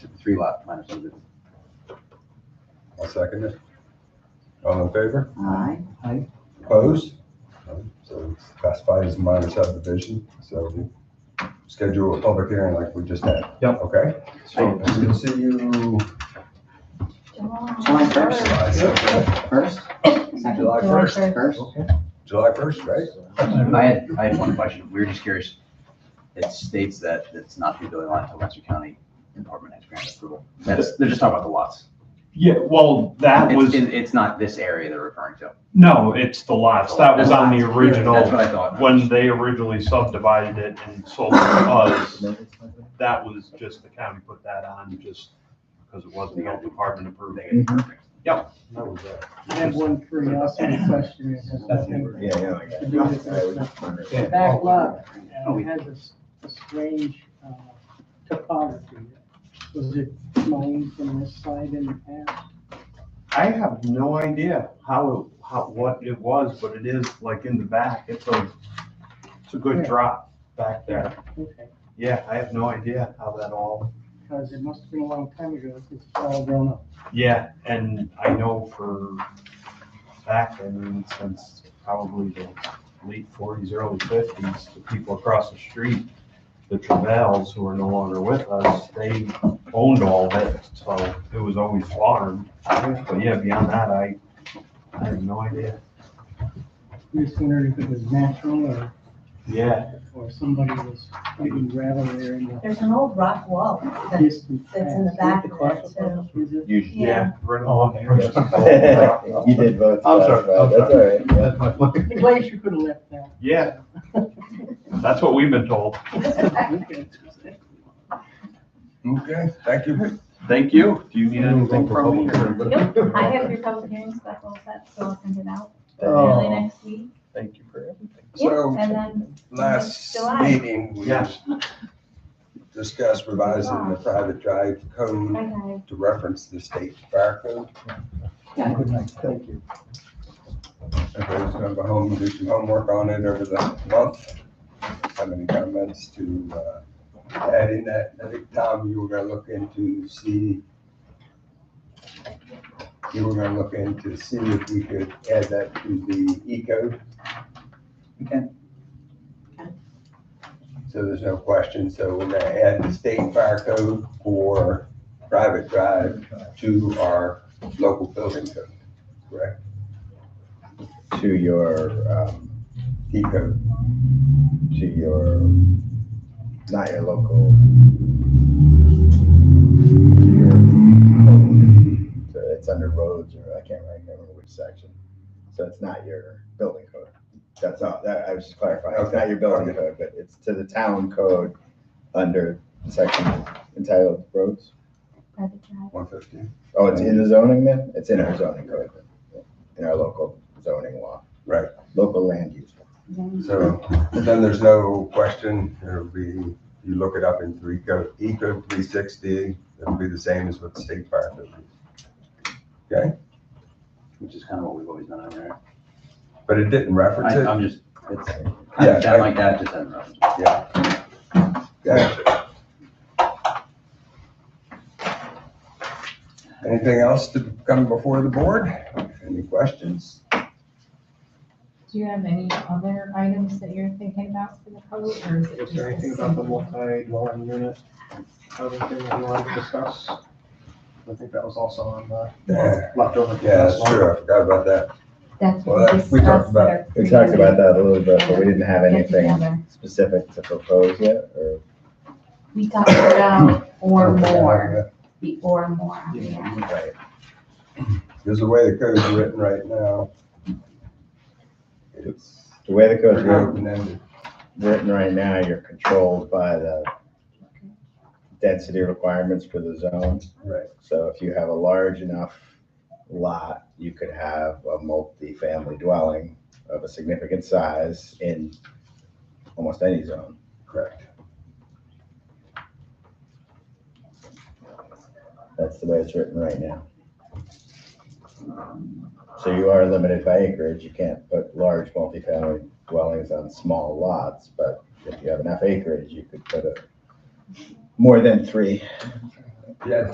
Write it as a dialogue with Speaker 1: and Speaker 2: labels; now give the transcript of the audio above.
Speaker 1: three lot plan amendment.
Speaker 2: I'll second it. All in favor?
Speaker 3: Aye.
Speaker 2: Opposed? None. So it's classified as minor subdivision, so we schedule a public hearing like we just had.
Speaker 4: Yep.
Speaker 2: Okay? So we'll see you
Speaker 3: July first,
Speaker 2: July second.
Speaker 3: first, second,
Speaker 2: July first.
Speaker 3: first.
Speaker 2: July first, right?
Speaker 1: I had, I had one question. We were just curious. It states that it's not the building lot until Webster County Department has grant approval. That's, they're just talking about the lots.
Speaker 4: Yeah, well, that
Speaker 1: It's,
Speaker 4: was,
Speaker 1: it- it's not this area they're referring to.
Speaker 4: no, it's the lots. That was on the
Speaker 1: That's what
Speaker 4: original,
Speaker 1: I thought.
Speaker 4: when they originally subdivided it and sold it to us. That was just, the county put that on just because it wasn't the health department approved.
Speaker 1: They get it.
Speaker 2: That was it.
Speaker 5: I have one curiosity question. It has nothing
Speaker 6: Yeah, yeah, I
Speaker 5: to do with this, but
Speaker 2: Yeah.
Speaker 5: Back lot, uh, it has this, this strange, uh, topography. Was it mined from this side in the past?
Speaker 4: I have no idea how, how, what it was, but it is like in the back. It's a, it's a good drop back there.
Speaker 5: Okay,
Speaker 4: Yeah, I have no idea how that all,
Speaker 5: because it must have been a long time ago, it's all grown up.
Speaker 4: yeah, and I know for a fact, I mean, since probably the late forties, early fifties, the people across the street, the Travels, who are no longer with us, they owned all of it, so it was always farmed. But yeah, beyond that, I, I have no idea.
Speaker 5: We just wondered if it was natural or,
Speaker 4: Yeah,
Speaker 5: or somebody was putting gravel there in the
Speaker 7: There's an old rock wall that-
Speaker 5: distant past.
Speaker 7: that's in the back of there too.
Speaker 5: Is it?
Speaker 6: Usually.
Speaker 7: Yeah,
Speaker 4: Right along
Speaker 6: Yeah. You did vote.
Speaker 4: I'm sorry,
Speaker 6: That's all
Speaker 4: I'm sorry.
Speaker 6: right, yeah.
Speaker 5: I'm glad you could have left that.
Speaker 4: Yeah, that's what we've been told.
Speaker 5: Okay.
Speaker 2: Okay, thank you.
Speaker 4: Thank you. Do you need
Speaker 2: Anything
Speaker 4: anything
Speaker 2: for
Speaker 4: from me?
Speaker 2: public hearing?
Speaker 7: Nope, I have your public hearing stuff all set, so I'll send it out early
Speaker 6: Oh,
Speaker 7: next week.
Speaker 6: Thank you for everything.
Speaker 7: Yeah,
Speaker 2: So
Speaker 7: and then,
Speaker 2: last
Speaker 7: July.
Speaker 2: meeting, we
Speaker 4: Yeah.
Speaker 2: discussed revising the private drive code
Speaker 7: okay,
Speaker 2: to reference the state fire code.
Speaker 6: Good night, thank you.
Speaker 2: Everybody's gonna go home and do some homework on it over the month. Have any comments to uh, add in that? I think, Tom, you were gonna look into see, you were gonna look into see if we could add that to the E code.
Speaker 1: We can.
Speaker 2: So there's no question. So we're gonna add the state fire code for private drive to our local building code, correct?
Speaker 6: To your, um,
Speaker 2: E code.
Speaker 6: to your, not your local. your own, so It's under roads or I can't remember which section. So it's not your building code. That's all, that, I was just clarifying. It's not your building code, but it's to the town code under section entitled roads.
Speaker 7: private drive.
Speaker 2: One fifteen.
Speaker 6: Oh, it's in the zoning then? It's in our zoning code, in our local zoning law.
Speaker 2: Right.
Speaker 6: Local land use.
Speaker 2: So then there's no question, it'll be, you look it up in three code, Eco three sixty, it'll be the same as what the state fire code is.
Speaker 1: Which is kind of what we've always done over there.
Speaker 2: But it didn't reference
Speaker 1: I-
Speaker 2: it.
Speaker 1: I'm just, it's kind
Speaker 2: Yeah,
Speaker 1: of sound
Speaker 2: I-
Speaker 1: like that, just doesn't reference.
Speaker 2: Gotcha. Anything else to come before the board? Any questions?
Speaker 8: Do you have any other items that you're thinking about for the code, or is it
Speaker 9: Is
Speaker 8: just?
Speaker 9: there anything about the multi-dwelling unit, other thing that you wanted to discuss? I think that was also on the
Speaker 2: Yeah,
Speaker 9: leftover.
Speaker 2: yeah, that's true, I forgot about that.
Speaker 8: That's
Speaker 2: Well,
Speaker 8: what we
Speaker 2: that- we talked
Speaker 8: discussed.
Speaker 2: about-
Speaker 8: at our
Speaker 6: We talked about that a little bit, but we
Speaker 8: previous
Speaker 6: didn't have anything
Speaker 8: get-together.
Speaker 6: specific to propose yet, or?
Speaker 8: We talked about or more, the or more, yeah.
Speaker 6: Right.
Speaker 2: Because the way the code's written right now, it's
Speaker 6: The way the code's
Speaker 2: pretty
Speaker 6: writ-
Speaker 2: open-ended.
Speaker 6: written right now, you're controlled by the density requirements for the zone.
Speaker 2: Right.
Speaker 6: So if you have a large enough lot, you could have a multi-family dwelling of a significant size in almost any zone.
Speaker 2: Correct.
Speaker 6: That's the way it's written right now. So you are limited by acreage. You can't put large multifamily dwellings on small lots, but if you have enough acreage, you could put a more than three
Speaker 2: Yeah,